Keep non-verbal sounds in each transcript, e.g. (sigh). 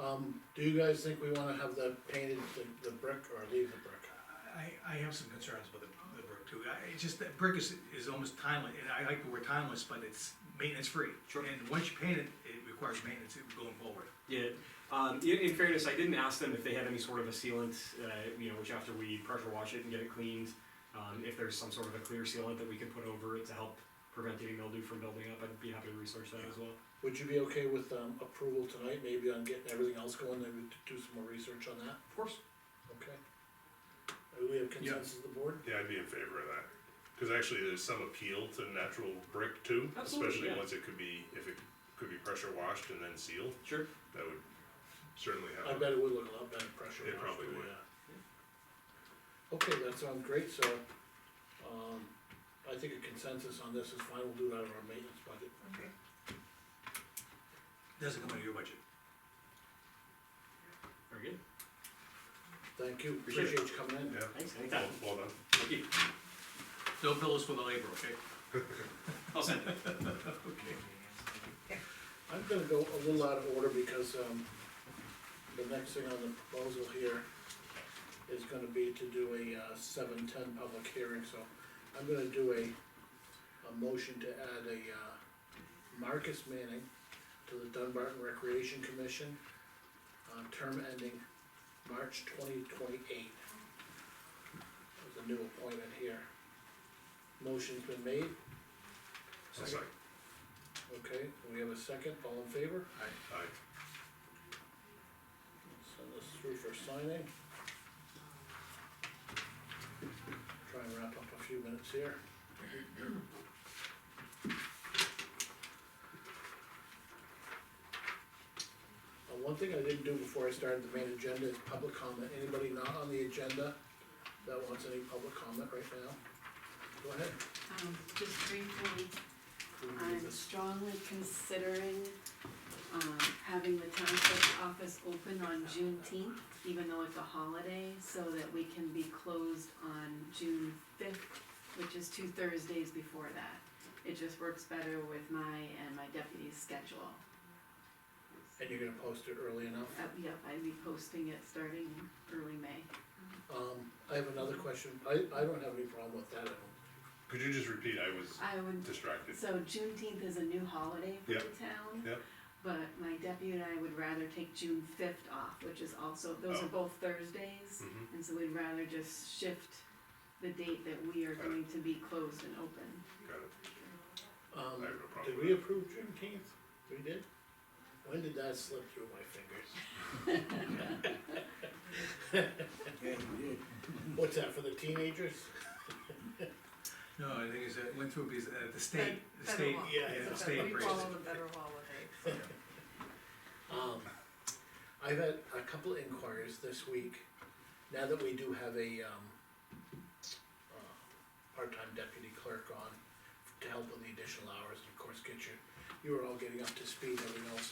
Um, do you guys think we wanna have that painted, the, the brick, or leave the brick? I, I have some concerns about the, the brick too, I, it's just, that brick is, is almost timeless, and I like the word timeless, but it's maintenance free. Sure. And once you paint it, it requires maintenance going forward. Yeah, um, in, in fairness, I didn't ask them if they had any sort of a sealant, uh, you know, which after we pressure wash it and get it cleaned, um, if there's some sort of a clear sealant that we could put over it to help prevent any mildew from building up, I'd be happy to research that as well. Would you be okay with, um, approval tonight, maybe on getting everything else going, maybe to do some more research on that, Of course. okay? Uh, Do we have consensus of the board? Yeah, I'd be in favor of that, cause actually there's some appeal to natural brick too, Absolutely, especially yeah. once it could be, if it could be pressure washed and then sealed, Sure. that would certainly I help. bet it would look a lot better pressure. It washed, probably but would. yeah. Okay, that sounds great, so, um, I think a consensus on this is fine, we'll do that on our maintenance budget. Doesn't come out of your budget. Very good. Thank you, Appreciate it. appreciate you coming in. Yeah, Thanks. well, Anytime. well done. Thank you. Don't bill us for the labor, okay? (laughs) I'll send it. Okay. I'm gonna go a little out of order because, um, the next thing on the proposal here is gonna be to do a, uh, seven-ten public hearing, so I'm gonna do a, a motion to add a, uh, Marcus Manning to the Dunbarton Recreation Commission, uh, term ending March twenty twenty-eight. There's a new appointment here. Motion's been made, It's like, okay, we have a second, all in favor? I, Send this through for signing. Try and wrap up a few minutes here. Uh, one thing I didn't do before I started the main agenda is public comment, anybody not on the agenda that wants any public comment right now? Go ahead. Um, just briefly, Who would do I'm this? strongly considering, um, having the township's office open on Juneteenth, even though it's a holiday, so that we can be closed on June fifth, which is two Thursdays before that. It just works better with my and my deputy's schedule. And you're gonna post it early enough? Uh, yep, I'd be posting it starting early May. Um, I have another question, I, I don't have any problem with that, I don't could you just repeat, I was I would distracted, So Juneteenth is a new holiday for the Yep. town. Yep. But my deputy and I would rather take June fifth off, which is also, those Oh. are both Thursdays. Mhm. And so we'd rather just shift the date that we are Got it. going to be closed and open. got it, Um, I have no problem did with we approve Juneteenth? We did? When did that slip through my fingers? (laughs) What's that, for the teenagers? No, I think it's, it went through, because, uh, the state, the Federal state, law. yeah, the state We raised follow it. the federal holiday. Um, I've had a couple of inquiries this week, now that we do have a, um, uh, part-time deputy clerk on to help with the additional hours, and of course, get your, you are all getting up to speed, and everything else.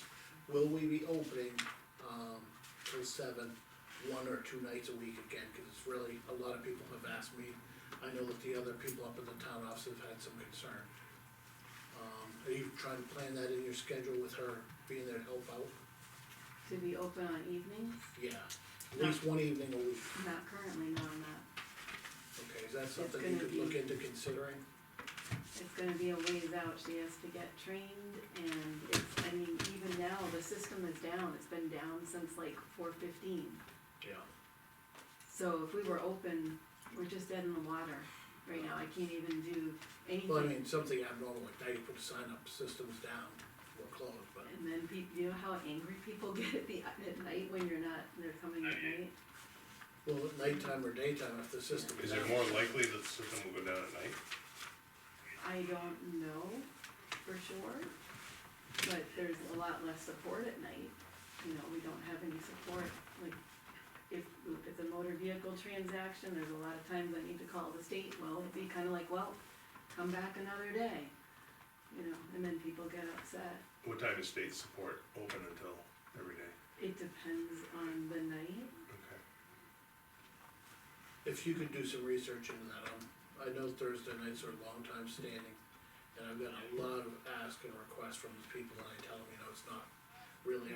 Will we be opening, um, till seven, one or two nights a week again, cause it's really, a lot of people have asked me. I know that the other people up in the town office have had some concern. Um, are you trying to plan that in your schedule with her being there to help out? To be open on evenings? Yeah, at least one evening a week, Not currently, no, I'm not. okay, is that something you gonna could look be- into considering? It's gonna be a ways out. She has to get trained and it's, I mean, even now, the system is down. It's been down since like four fifteen. Yeah. So if we were open, we're just dead in the water right now, I can't even do Well, I anything. mean, something abnormal like that, you put a sign up, systems down, we're closed, but, And then people, you know how angry people (laughs) get at the, at night when you're not, they're coming at night? well, at nighttime or daytime, if the system is is it down. more likely that the system will go down at night? I don't know for sure, but there's a lot less support at night. You know, we don't have any support, like, if, if it's a motor vehicle transaction, there's a lot of times I need to call the state, well, it'd be kinda like, well, come back another day. You know, and then people get upset. What time is state support open until every day? It depends on the night. Okay. If you could do some research into that, um, I know Thursday nights are a long time standing, and I've got a lot of ask and requests from the people, and I tell them, you know, it's not really